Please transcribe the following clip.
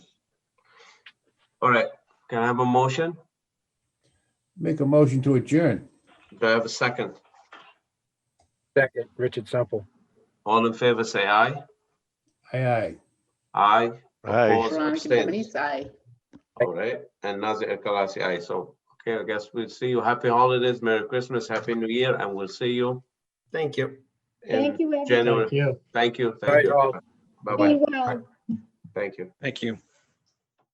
All right, can I have a motion? Make a motion to adjourn. Do I have a second? Second, Richard Sample. All in favor, say aye. Aye, aye. Aye. Aye. Opposed, Veronica abstained. Bonnet's aye. All right, and Nazir El Khalasi, aye. So, okay, I guess we'll see you. Happy holidays, Merry Christmas, Happy New Year, and we'll see you Thank you. in you, everyone. January. you. Thank you, Bye, thank you. y'all. Bye-bye, well. thank you. Thank you.